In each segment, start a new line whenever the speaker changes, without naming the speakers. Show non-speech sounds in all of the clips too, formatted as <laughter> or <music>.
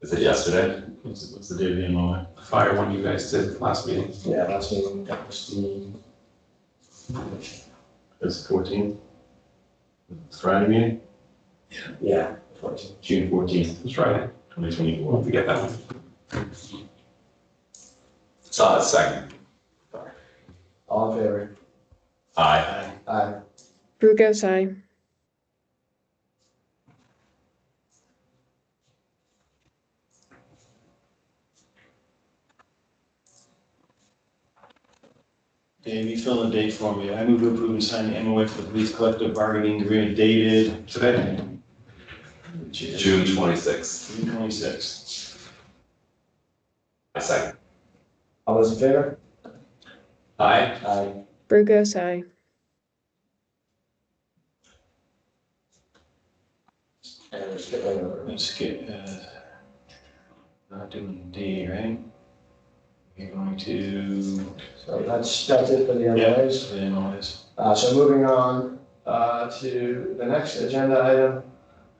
Is it yesterday?
What's, what's the date of the MOA?
the fire one you guys did last meeting.
Yeah, last meeting, got Christine.
It's fourteen? Friday meeting,
Yeah, fourteen.
June fourteenth,
Let's try it.
twenty twenty-four.
Won't forget that one.
Saw it uh, second.
All in favor?
Aye.
Aye.
Brew goes aye.
Dave, you fill the date for me. I move to approve and sign the MOA for the police collective bargaining agreement dated
Today,
June twenty-sixth.
June twenty-sixth.
I second.
All those in favor?
Aye.
Aye.
Brew goes aye.
And let's get right over it.
Let's get, uh, not doing D, right? You're going to,
So that's, that's it for the
Yeah.
MOAs.
the MOAs.
Uh, so moving on, uh, to the next agenda item.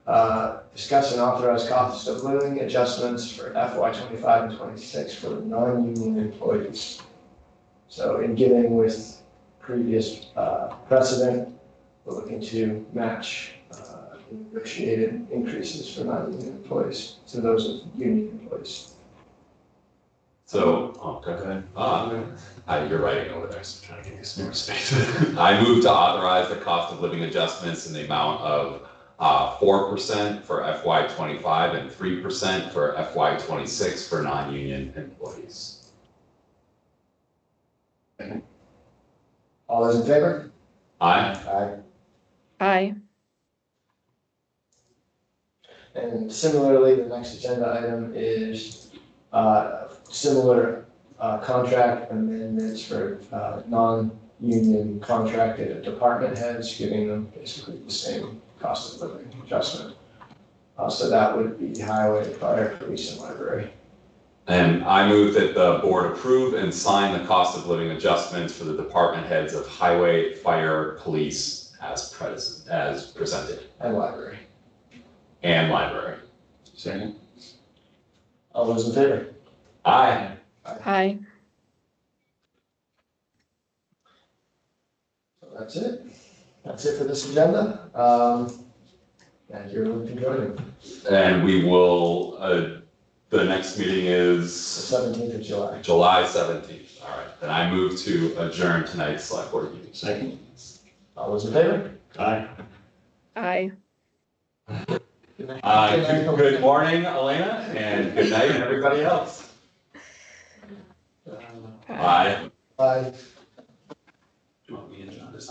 Uh, discuss and authorize cost of living adjustments for FY twenty-five and twenty-six for non-union employees. So in giving with previous, uh, precedent, we're looking to match, uh, negotiated increases for non-union employees to those of union employees.
So, oh,
Go
okay.
ahead.
Ah, man. Uh, you're writing over there, so I'm trying to give you some more space. <laughs> I move to authorize the cost of living adjustments in the amount of uh four percent for FY twenty-five and three percent for FY twenty-six for non-union employees.
All those in favor?
Aye.
Aye.
Aye.
And similarly, the next agenda item is uh, similar uh, contract amendments for uh, non-union contracted department heads, giving them basically the same cost of living adjustment. Uh, So that would be highway, fire, police, and library.
And I move that the board approve and sign the cost of living adjustments for the department heads of highway, fire, police as pres- as presented,
And library.
and library.
Second.
All those in favor?
Aye.
Aye.
So That's it. That's it for this agenda. Um, And you're looking good.
And we will, uh, the next meeting
The
is
17th of July.
July seventeenth. All right, then I move to adjourn tonight's select board meeting.
Second.
All those in favor?
Aye.
Aye.
Uh, good- good morning, Elena, and good night, everybody else.
Um,
Bye.
Bye.
Do you want me and John to sign